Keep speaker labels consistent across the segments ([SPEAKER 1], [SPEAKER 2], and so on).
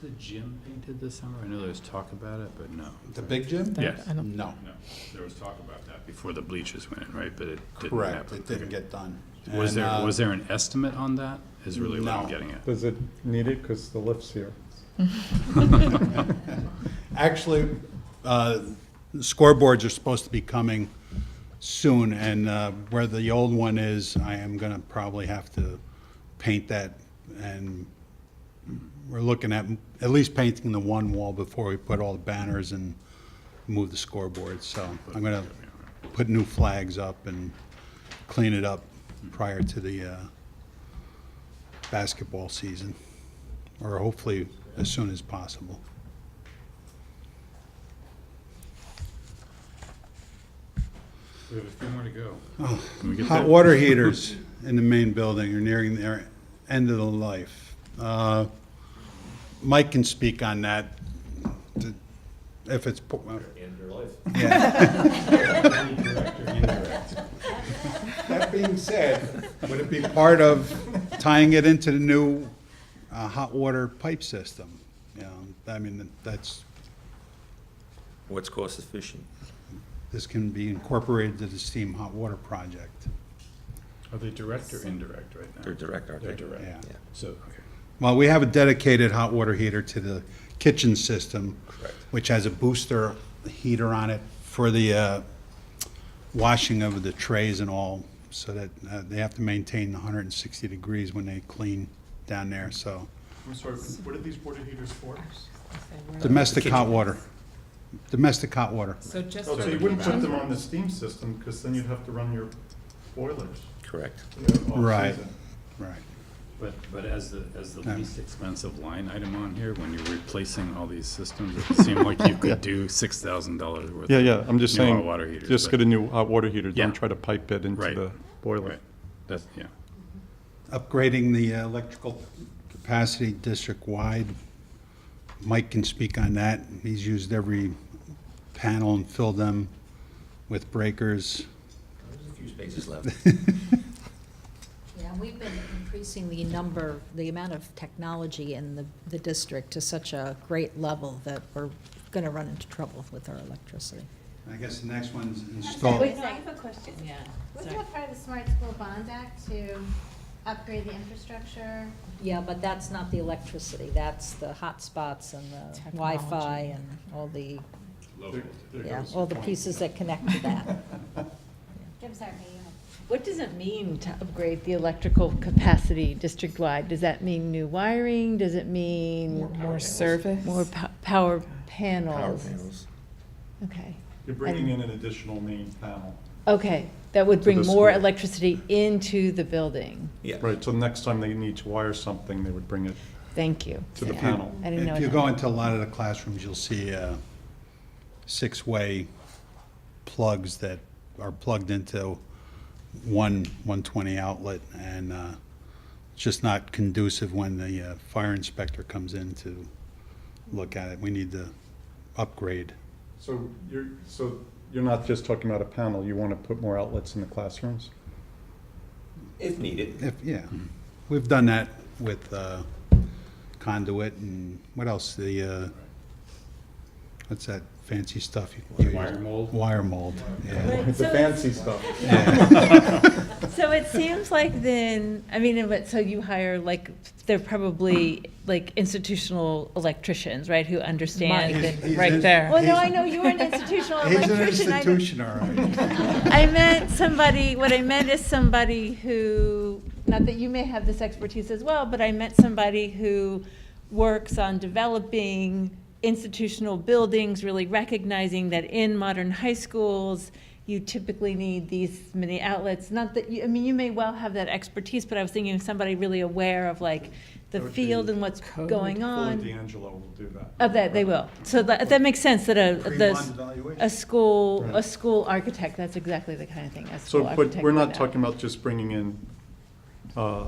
[SPEAKER 1] the gym painted this summer? I know there was talk about it, but no.
[SPEAKER 2] The big gym?
[SPEAKER 1] Yeah. Yes.
[SPEAKER 3] I don't-
[SPEAKER 2] No,
[SPEAKER 1] No, there was talk about that before the bleachers went in, right, but it didn't
[SPEAKER 2] correct,
[SPEAKER 1] happen.
[SPEAKER 2] it didn't get done.
[SPEAKER 1] Was
[SPEAKER 2] And,
[SPEAKER 1] there,
[SPEAKER 2] uh,
[SPEAKER 1] was there an estimate on that, is really what I'm
[SPEAKER 2] No.
[SPEAKER 1] getting at?
[SPEAKER 4] Does it need it, because the lift's here?
[SPEAKER 2] Actually, uh, scoreboards are supposed to be coming soon, and uh, where the old one is, I am going to probably have to paint that, and we're looking at, at least painting the one wall before we put all the banners and move the scoreboards. so I'm going to put new flags up and clean it up prior to the uh, basketball season, or hopefully as soon as possible.
[SPEAKER 1] We have a few more to go.
[SPEAKER 2] Oh. Hot water heaters in the main building are nearing their end of the life. Uh, Mike can speak on that, th- if it's, po- uh,
[SPEAKER 5] End your life.
[SPEAKER 2] yeah,
[SPEAKER 4] That being said.
[SPEAKER 2] would it be part of tying it into the new uh, hot water pipe system? You know, I mean, that's,
[SPEAKER 5] What's cost efficient?
[SPEAKER 2] this can be incorporated to the steam hot water project,
[SPEAKER 1] Are they direct or indirect right now?
[SPEAKER 5] They're direct, aren't they?
[SPEAKER 1] They're direct.
[SPEAKER 2] yeah.
[SPEAKER 5] Yeah.
[SPEAKER 1] So, okay,
[SPEAKER 2] Well, we have a dedicated hot water heater to the kitchen system.
[SPEAKER 5] Correct.
[SPEAKER 2] Which has a booster heater on it for the uh, washing of the trays and all, so that uh, they have to maintain 160 degrees when they clean down there, so.
[SPEAKER 6] I'm sorry, what are these water heaters for?
[SPEAKER 2] Domestic hot water. Domestic hot water.
[SPEAKER 3] So just
[SPEAKER 6] Oh,
[SPEAKER 3] for
[SPEAKER 6] so you
[SPEAKER 3] the
[SPEAKER 6] wouldn't put them on the steam system, because then you'd have to run your boilers.
[SPEAKER 5] Correct.
[SPEAKER 6] you know, off
[SPEAKER 2] Right.
[SPEAKER 6] season.
[SPEAKER 2] Right.
[SPEAKER 1] but, but as the, as the
[SPEAKER 2] Yeah.
[SPEAKER 1] least expensive line item on here, when you're replacing all these systems, it seemed like you could do six thousand dollars worth.
[SPEAKER 4] Yeah,
[SPEAKER 1] of
[SPEAKER 4] yeah, I'm just
[SPEAKER 1] new hot
[SPEAKER 4] saying,
[SPEAKER 1] water heaters,
[SPEAKER 4] just
[SPEAKER 1] but-
[SPEAKER 4] get a new hot water heater,
[SPEAKER 1] Yeah.
[SPEAKER 4] don't try to pipe it into
[SPEAKER 1] Right.
[SPEAKER 4] the boiler.
[SPEAKER 1] Right, that's, yeah.
[SPEAKER 2] Upgrading the electrical capacity district-wide. Mike can speak on that. He's used every panel and filled them with breakers.
[SPEAKER 5] There's a few spaces left.
[SPEAKER 7] Yeah, and we've been increasing the number, the amount of technology in the, the district to such a great level that we're gonna run into trouble with our electricity.
[SPEAKER 2] I guess the next one's
[SPEAKER 8] Sorry,
[SPEAKER 2] installed.
[SPEAKER 8] Wait, no, I have a question.
[SPEAKER 3] Yeah.
[SPEAKER 8] Wasn't that part of the Smart School Bond Act to upgrade the infrastructure?
[SPEAKER 7] Yeah, but that's not the electricity, that's the hotspots and the Wi-Fi
[SPEAKER 3] Technology.
[SPEAKER 7] and all the,
[SPEAKER 6] There- there
[SPEAKER 7] yeah,
[SPEAKER 6] goes
[SPEAKER 7] all
[SPEAKER 6] the
[SPEAKER 7] the
[SPEAKER 6] point.
[SPEAKER 7] pieces that connect to that.
[SPEAKER 8] I'm sorry, Mary, you
[SPEAKER 9] What does it mean to upgrade the electrical capacity district-wide? Does that mean new wiring? Does it mean
[SPEAKER 3] More service.
[SPEAKER 9] more po- power
[SPEAKER 5] Power
[SPEAKER 9] panels?
[SPEAKER 5] panels.
[SPEAKER 9] Okay,
[SPEAKER 6] You're bringing in an additional main panel.
[SPEAKER 9] okay, that would
[SPEAKER 4] To
[SPEAKER 9] bring
[SPEAKER 4] the
[SPEAKER 9] more
[SPEAKER 4] school.
[SPEAKER 9] electricity into the building.
[SPEAKER 5] Yeah.
[SPEAKER 4] Right, so next time they need to wire something, they would bring it
[SPEAKER 9] Thank you.
[SPEAKER 4] to the
[SPEAKER 9] Yeah.
[SPEAKER 4] panel.
[SPEAKER 9] I didn't know.
[SPEAKER 2] If you
[SPEAKER 9] it
[SPEAKER 2] go
[SPEAKER 9] had-
[SPEAKER 2] into a lot of the classrooms, you'll see uh, six-way plugs that are plugged into one 120 outlet, and uh, it's just not conducive when the uh, fire inspector comes in to look at it. We need to upgrade.
[SPEAKER 4] So you're, so you're not just talking about a panel, you want to put more outlets in the classrooms?
[SPEAKER 5] If needed.
[SPEAKER 2] If, yeah, we've done that with uh, conduit and what else, the, uh, what's that fancy stuff? you- you
[SPEAKER 1] Wire
[SPEAKER 2] use?
[SPEAKER 1] mold?
[SPEAKER 2] Wire mold, yeah.
[SPEAKER 9] Right,
[SPEAKER 4] The
[SPEAKER 9] so-
[SPEAKER 4] fancy stuff.
[SPEAKER 9] So it seems like then, I mean, but, so you hire like, they're probably like institutional electricians, right, who understand
[SPEAKER 2] He's-
[SPEAKER 9] that-
[SPEAKER 2] he's
[SPEAKER 3] right
[SPEAKER 2] in-
[SPEAKER 3] there.
[SPEAKER 9] Well, no,
[SPEAKER 2] he's-
[SPEAKER 9] I know you're an institutional
[SPEAKER 2] He's an
[SPEAKER 9] electrician. I don't-
[SPEAKER 2] institution, all right.
[SPEAKER 9] I meant somebody, what I meant is somebody who, not that you may have this expertise as well, but I meant somebody who works on developing institutional buildings, really recognizing that in modern high schools, you typically need these many outlets. Not that, you I mean, you may well have that expertise, but I was thinking of somebody really aware of like the
[SPEAKER 4] That would
[SPEAKER 9] field
[SPEAKER 4] be
[SPEAKER 9] and what's
[SPEAKER 4] Code.
[SPEAKER 9] going
[SPEAKER 4] Fuller
[SPEAKER 9] on.
[SPEAKER 4] D'Angelo will do that.
[SPEAKER 9] Of that, they will. So that, that makes sense that a, the, a school, a
[SPEAKER 4] Right.
[SPEAKER 9] school architect, that's exactly the kind of thing a school
[SPEAKER 4] So,
[SPEAKER 9] architect
[SPEAKER 4] but we're
[SPEAKER 9] would
[SPEAKER 4] not
[SPEAKER 9] know.
[SPEAKER 4] talking about just bringing in uh,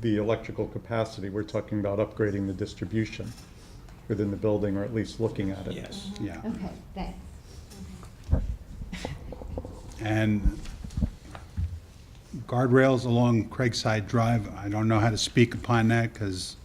[SPEAKER 4] the electrical capacity, we're talking about upgrading the distribution within the building, or at least looking at it.
[SPEAKER 5] Yes.
[SPEAKER 2] Yeah,
[SPEAKER 8] know. Okay, thanks.
[SPEAKER 2] and guardrails along Craigside Drive, I don't know how to speak upon that, because